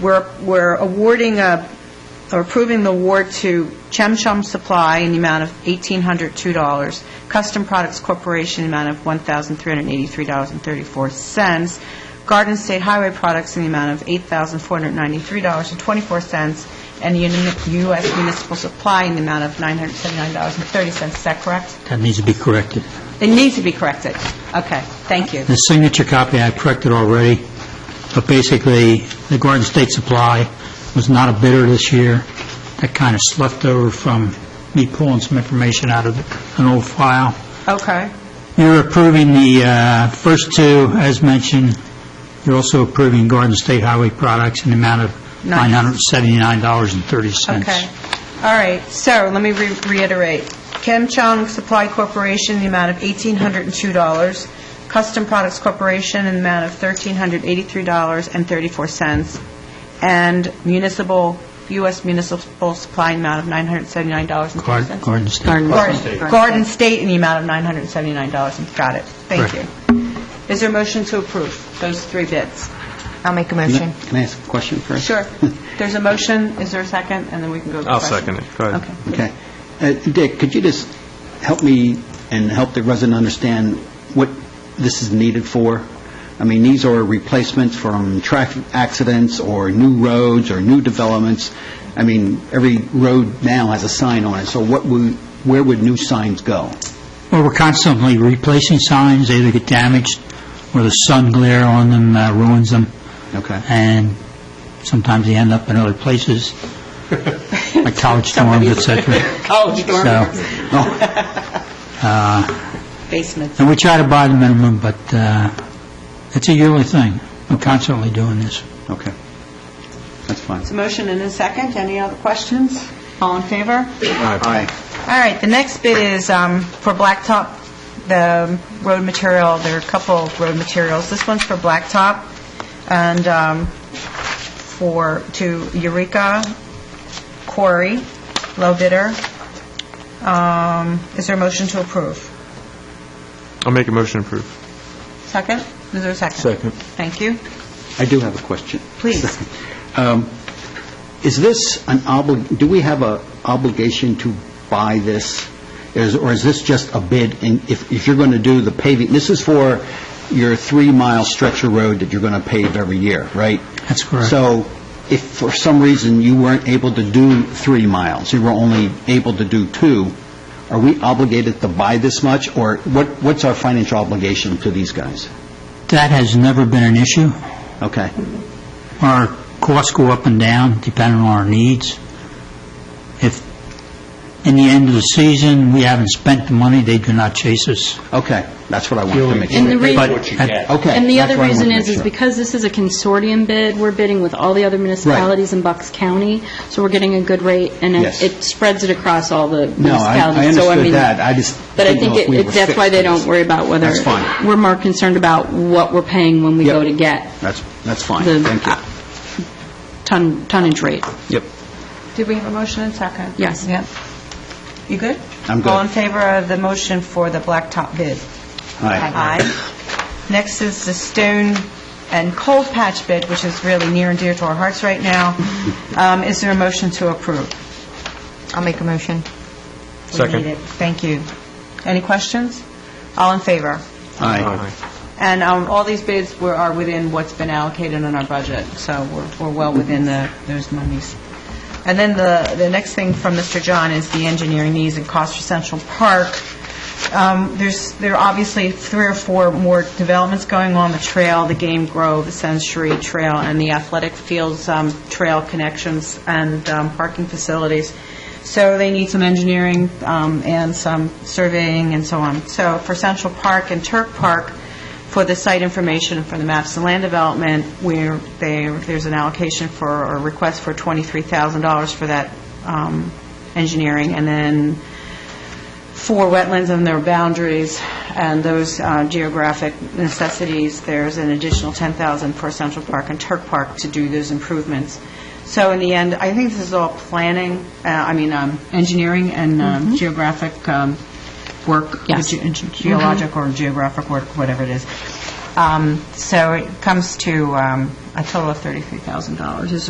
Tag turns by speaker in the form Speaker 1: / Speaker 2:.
Speaker 1: We're we're awarding a, or approving the award to Chem Chum Supply in the amount of $1,802, Custom Products Corporation in the amount of $1,383.34, Garden State Highway Products in the amount of $8,493.24, and Uni- U.S. Municipal Supply in the amount of $979.30. Is that correct?
Speaker 2: That needs to be corrected.
Speaker 1: It needs to be corrected. Okay, thank you.
Speaker 2: The signature copy I corrected already, but basically, the Garden State Supply was not a bidder this year. That kind of slept over from me pulling some information out of an old file.
Speaker 1: Okay.
Speaker 2: You're approving the uh, first two, as mentioned. You're also approving Garden State Highway Products in the amount of
Speaker 1: Nice.
Speaker 2: $979.30.
Speaker 1: Okay. All right, so let me re- reiterate. Kim Chong Supply Corporation, the amount of $1,802. Custom Products Corporation, in the amount of $1,383.34. And municipal, U.S. Municipal Supply, in the amount of
Speaker 2: Gar-
Speaker 1: $979.30.
Speaker 2: Garden State.
Speaker 1: Garden Garden State in the amount of $979. Got it. Thank
Speaker 2: Correct.
Speaker 1: you. Is there a motion to approve those three bids?
Speaker 3: I'll make a motion.
Speaker 4: Can I ask a question first?
Speaker 1: Sure. There's a motion, is there a second? And then we can go to
Speaker 5: I'll
Speaker 1: questions.
Speaker 5: second it. Go ahead.
Speaker 1: Okay.
Speaker 4: Okay. Uh, Dick, could you just help me and help the resident understand what this is needed for? I mean, these are replacements from traffic accidents or new roads or new developments. I mean, every road now has a sign on it, so what would, where would new signs go?
Speaker 2: Well, we're constantly replacing signs, they either get damaged, or the sun glare on them uh, ruins them.
Speaker 4: Okay.
Speaker 2: And sometimes they end up in other places, like college dorms, et cetera.
Speaker 1: College
Speaker 2: So,
Speaker 1: Basements.
Speaker 2: and we try to buy the minimum, but uh, it's a yearly thing. We're constantly doing this.
Speaker 4: Okay. That's fine.
Speaker 1: It's a motion and a second. Any other questions? All in favor?
Speaker 4: Aye.
Speaker 1: All right, the next bid is um, for blacktop, the road material, there are a couple of road materials. This one's for blacktop and um, for, to Eureka Quarry, low bidder. Um, Is there a motion to approve?
Speaker 5: I'll make a motion to approve.
Speaker 1: Second? Is there a second?
Speaker 5: Second.
Speaker 1: Thank you.
Speaker 4: I do have a question.
Speaker 1: Please.
Speaker 4: Um, Is this an obli, do we have a obligation to buy this? Is- Or is this just a bid? And if, if you're going to do the paving, this is for your three-mile stretch of road that you're going to pave every year, right?
Speaker 2: That's correct.
Speaker 4: So if for some reason you weren't able to do three miles, you were only able to do two, are we obligated to buy this much? Or what, what's our financial obligation to these guys?
Speaker 2: That has never been an issue.
Speaker 4: Okay,
Speaker 2: Our costs go up and down depending on our needs. If, in the end of the season, we haven't spent the money, they do not chase us.
Speaker 4: okay, that's what I wanted to make sure.
Speaker 6: And the reason-
Speaker 2: But at-
Speaker 4: Okay.
Speaker 6: And the
Speaker 4: that's
Speaker 6: other
Speaker 4: what I wanted
Speaker 6: reason
Speaker 4: to make
Speaker 6: is, is
Speaker 4: sure.
Speaker 6: because this is a consortium bid, we're bidding with all the other municipalities in Bucks County, so we're getting a good rate, and it
Speaker 4: Yes.
Speaker 6: it spreads it across all the
Speaker 4: No, I- I
Speaker 6: municipalities. So,
Speaker 4: understood
Speaker 6: mean-
Speaker 4: that. I just
Speaker 6: But I
Speaker 4: didn't
Speaker 6: think
Speaker 4: know if
Speaker 6: it-
Speaker 4: we
Speaker 6: it-
Speaker 4: were
Speaker 6: that's why
Speaker 4: fixed
Speaker 6: they
Speaker 4: on this.
Speaker 6: don't worry about whether...
Speaker 4: That's fine.
Speaker 6: We're more concerned about what we're paying when we
Speaker 4: Yep.
Speaker 6: go to get
Speaker 4: That's, that's fine,
Speaker 6: The- uh,
Speaker 4: thank you.
Speaker 6: ton tonnage rate.
Speaker 4: Yep.
Speaker 1: Did we have a motion and second?
Speaker 6: Yes.
Speaker 1: Yep. You good?
Speaker 4: I'm good.
Speaker 1: All in favor of the motion for the blacktop bid?
Speaker 4: Aye.
Speaker 1: Aye. Next is the stone and cold patch bid, which is really near and dear to our hearts right now. Um, Is there a motion to approve?
Speaker 3: I'll make a motion.
Speaker 1: We
Speaker 5: Second.
Speaker 1: need it. Thank you. Any questions? All in favor?
Speaker 4: Aye.
Speaker 1: And um, all these bids were, are within what's been allocated in our budget, so we're, we're well within the, those monies. And then the, the next thing from Mr. John is the engineering needs and cost for Central Park. Um, There's, there are obviously three or four more developments going on, the trail, the Game Grove, the Century Trail, and the athletic fields, um, trail connections, and um, parking facilities. So they need some engineering um, and some surveying and so on. So for Central Park and Turk Park, for the site information for the maps and land development, where there, there's an allocation for, or request for $23,000 for that um, engineering, and then for wetlands and their boundaries and those uh, geographic necessities, there's an additional 10,000 for Central Park and Turk Park to do those improvements. So in the end, I think this is all planning, uh, I mean, um, engineering and um, geographic um, work.
Speaker 6: Yes.
Speaker 1: ge- ge- Geologic or geographic work, whatever it is. Um, So it comes to um, a total of $33,000 is